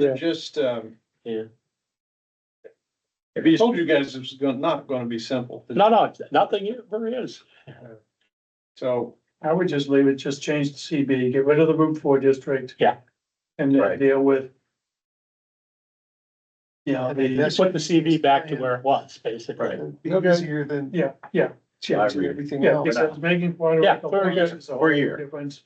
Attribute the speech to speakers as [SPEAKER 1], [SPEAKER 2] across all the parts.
[SPEAKER 1] Yeah.
[SPEAKER 2] Just, um.
[SPEAKER 1] Yeah. Oh.
[SPEAKER 2] If he told you guys it's gonna, not gonna be simple,
[SPEAKER 1] No, no, nothing ever is.
[SPEAKER 2] so.
[SPEAKER 3] I would just leave it, just change the CB, get rid of the Route Four district.
[SPEAKER 1] Yeah.
[SPEAKER 3] And then
[SPEAKER 4] Right.
[SPEAKER 3] deal with. You know,
[SPEAKER 4] And then
[SPEAKER 3] the,
[SPEAKER 4] this-
[SPEAKER 1] Put the CV back to where it was, basically.
[SPEAKER 4] Be
[SPEAKER 3] Okay.
[SPEAKER 4] easier than
[SPEAKER 3] yeah, yeah,
[SPEAKER 4] changing everything
[SPEAKER 3] yeah,
[SPEAKER 4] else.
[SPEAKER 3] because making.
[SPEAKER 1] Yeah, we're here.
[SPEAKER 4] We're here.
[SPEAKER 3] Difference,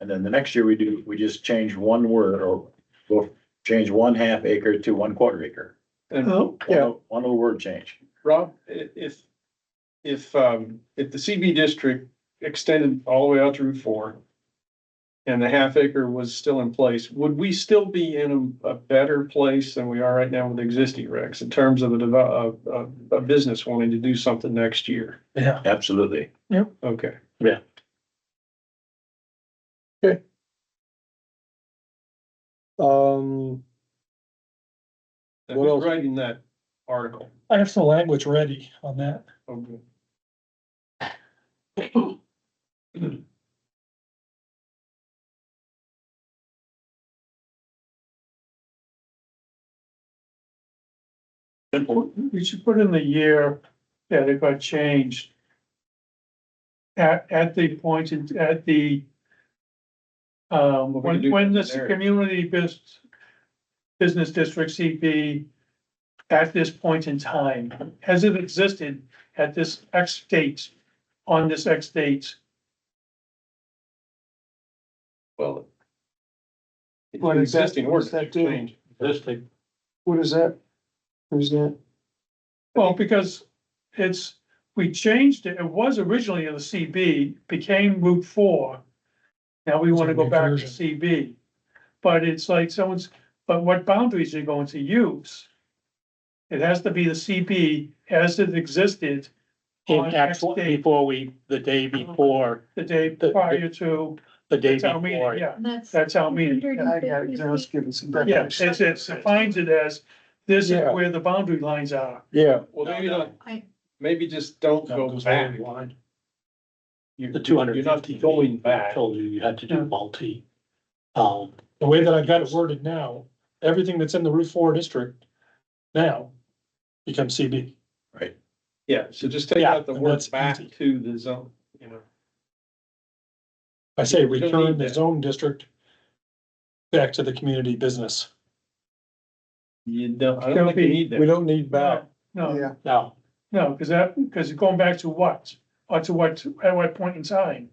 [SPEAKER 5] And then the next year we do, we just change one word or we'll change one half acre to one quarter acre.
[SPEAKER 2] And
[SPEAKER 3] oh,
[SPEAKER 5] One
[SPEAKER 4] Yeah.
[SPEAKER 5] little- One little word change.
[SPEAKER 2] Rob, i- if, if, um, if the CB district extended all the way out to Route four. And the half acre was still in place, would we still be in a, a better place than we are right now with existing regs in terms of a, devel- a, a, a business wanting to do something next year?
[SPEAKER 5] Absolutely.
[SPEAKER 2] Okay.
[SPEAKER 4] Um,
[SPEAKER 2] Now,
[SPEAKER 4] What
[SPEAKER 2] Who's
[SPEAKER 4] else?
[SPEAKER 2] writing that article?
[SPEAKER 6] I have some language ready on that.
[SPEAKER 2] Okay.
[SPEAKER 3] we should put in the year that it got changed. At, at the point, in- at the. Um,
[SPEAKER 2] we can
[SPEAKER 3] when,
[SPEAKER 2] do
[SPEAKER 3] when
[SPEAKER 2] that
[SPEAKER 3] this
[SPEAKER 2] there.
[SPEAKER 3] community business, business district CB. At this point in time, as it existed at this X date, on this X date.
[SPEAKER 2] Well. it's
[SPEAKER 4] What
[SPEAKER 2] an
[SPEAKER 4] is that-
[SPEAKER 2] Existing
[SPEAKER 4] what does
[SPEAKER 2] ordinance
[SPEAKER 4] that do?
[SPEAKER 2] change.
[SPEAKER 1] Existing.
[SPEAKER 4] what is that? Who's that?
[SPEAKER 3] Well, because it's, we changed it, it was originally in the CB, became Route Four. Now we wanna go back to CB. But it's like someone's, but what boundaries are you going to use? It has to be the CB as it existed
[SPEAKER 1] In
[SPEAKER 3] On
[SPEAKER 1] actual,
[SPEAKER 3] next day.
[SPEAKER 1] before we, the day before,
[SPEAKER 3] the day
[SPEAKER 1] The- the-
[SPEAKER 3] prior to
[SPEAKER 1] the day
[SPEAKER 3] town meeting,
[SPEAKER 1] before.
[SPEAKER 3] yeah,
[SPEAKER 7] That's.
[SPEAKER 3] that's our meeting. yeah.
[SPEAKER 4] I got it, just give it some
[SPEAKER 3] Yeah,
[SPEAKER 4] definition.
[SPEAKER 3] it's, it's, it defines it as, this is
[SPEAKER 4] Yeah.
[SPEAKER 3] where the boundary lines are.
[SPEAKER 4] Yeah,
[SPEAKER 2] Well, maybe
[SPEAKER 1] No, no.
[SPEAKER 2] not,
[SPEAKER 7] I-
[SPEAKER 2] maybe just don't
[SPEAKER 6] No,
[SPEAKER 2] go
[SPEAKER 6] goes
[SPEAKER 2] back.
[SPEAKER 6] line.
[SPEAKER 2] You-
[SPEAKER 1] The two hundred
[SPEAKER 2] You're
[SPEAKER 1] fifty.
[SPEAKER 2] not going back.
[SPEAKER 1] Told you you had to
[SPEAKER 3] Yeah.
[SPEAKER 1] do multi. Um,
[SPEAKER 6] The way that I've got it worded now, everything that's in the Route Four district now becomes CB.
[SPEAKER 2] Yeah, so just take
[SPEAKER 1] Yeah,
[SPEAKER 2] out the
[SPEAKER 6] and
[SPEAKER 2] word
[SPEAKER 6] that's
[SPEAKER 2] back
[SPEAKER 6] easy.
[SPEAKER 2] to the zone, you know.
[SPEAKER 6] I say
[SPEAKER 2] We don't
[SPEAKER 6] return
[SPEAKER 2] need
[SPEAKER 6] the
[SPEAKER 2] that.
[SPEAKER 6] zone district back to the community business.
[SPEAKER 2] You don't, I
[SPEAKER 3] Don't
[SPEAKER 2] don't think you
[SPEAKER 3] be-
[SPEAKER 2] need
[SPEAKER 4] we
[SPEAKER 2] that.
[SPEAKER 4] don't need back.
[SPEAKER 3] No, no,
[SPEAKER 4] Yeah,
[SPEAKER 1] no,
[SPEAKER 3] No, because that, because going back to what, or to what, at what point in time?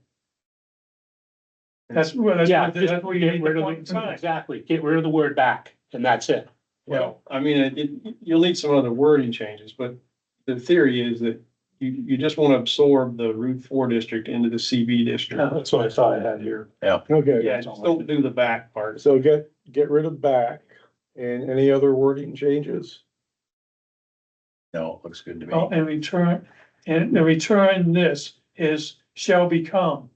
[SPEAKER 3] That's where, that's
[SPEAKER 1] yeah,
[SPEAKER 3] where,
[SPEAKER 1] just
[SPEAKER 3] that's where you
[SPEAKER 1] get
[SPEAKER 3] need the
[SPEAKER 1] rid
[SPEAKER 3] point in
[SPEAKER 1] of the,
[SPEAKER 3] time.
[SPEAKER 1] exactly, get rid of the word back, and that's it.
[SPEAKER 2] Well, I mean, it- it, you'll need some other wording changes, but the theory is that you, you just want to absorb the Route Four district into the CB district.
[SPEAKER 6] That's what I thought I had here.
[SPEAKER 4] okay,
[SPEAKER 2] Yeah, just don't do the back part.
[SPEAKER 4] so get, get rid of back and any other wording changes?
[SPEAKER 5] No, it looks good to
[SPEAKER 3] Oh,
[SPEAKER 5] me.
[SPEAKER 3] and return, and the return this is shall become.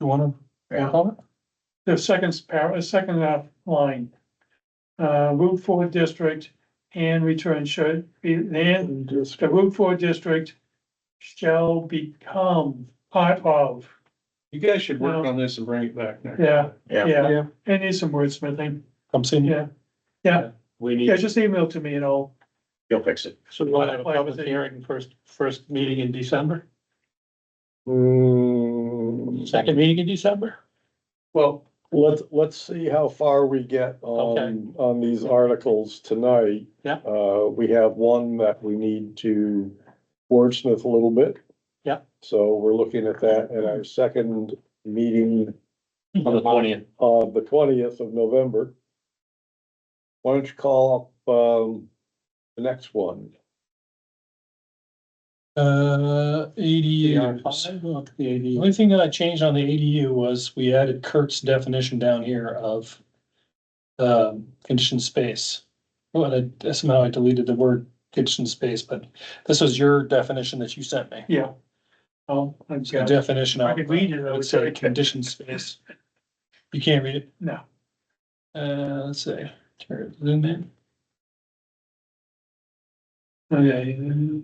[SPEAKER 6] You wanna
[SPEAKER 5] Yeah.
[SPEAKER 6] work on it?
[SPEAKER 3] the second par, second uh, line. Uh, Route Four District and return should be, and the Route Four District shall become part of,
[SPEAKER 2] You guys should work
[SPEAKER 3] No.
[SPEAKER 2] on this and bring it back next.
[SPEAKER 3] yeah,
[SPEAKER 5] Yeah.
[SPEAKER 3] yeah,
[SPEAKER 4] Yeah.
[SPEAKER 3] it needs some wordsmithing,
[SPEAKER 6] Come see me.
[SPEAKER 3] yeah. Yeah,
[SPEAKER 1] We need.
[SPEAKER 3] Yeah, just email to me and I'll,
[SPEAKER 5] You'll fix it.
[SPEAKER 1] So we want to have a
[SPEAKER 3] Why was
[SPEAKER 1] public
[SPEAKER 3] it-
[SPEAKER 1] hearing first, first meeting in December,
[SPEAKER 4] Hmm,
[SPEAKER 1] second meeting in December?
[SPEAKER 2] Well,
[SPEAKER 4] let's, let's see how far we get on, on these articles tonight.
[SPEAKER 1] Yeah.
[SPEAKER 4] Uh, we have one that we need to wordsmith a little bit.
[SPEAKER 1] Yeah.
[SPEAKER 4] So we're looking at that at our second meeting
[SPEAKER 1] On the twentieth.
[SPEAKER 4] of the twentieth of November. Why don't you call up, um, the next one?
[SPEAKER 6] Uh,
[SPEAKER 1] PR
[SPEAKER 6] ADUs.
[SPEAKER 1] five, look, the
[SPEAKER 6] The
[SPEAKER 1] AD.
[SPEAKER 6] only thing that I changed on the ADU was we added Kurt's definition down here of um, conditioned space. Well, I somehow I deleted the word conditioned space, but this was your definition that you sent me.
[SPEAKER 3] yeah. I'll, I've
[SPEAKER 6] The
[SPEAKER 3] got-
[SPEAKER 6] definition
[SPEAKER 3] I
[SPEAKER 6] of,
[SPEAKER 3] could read it, I
[SPEAKER 6] it
[SPEAKER 3] would
[SPEAKER 6] would
[SPEAKER 3] say.
[SPEAKER 6] say conditioned space. You can't read it?
[SPEAKER 3] No.
[SPEAKER 6] Uh, let's see, Turn it- zoom in.
[SPEAKER 3] okay,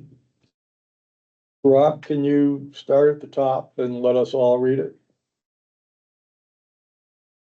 [SPEAKER 4] Rob, can you start at the top and let us all read it?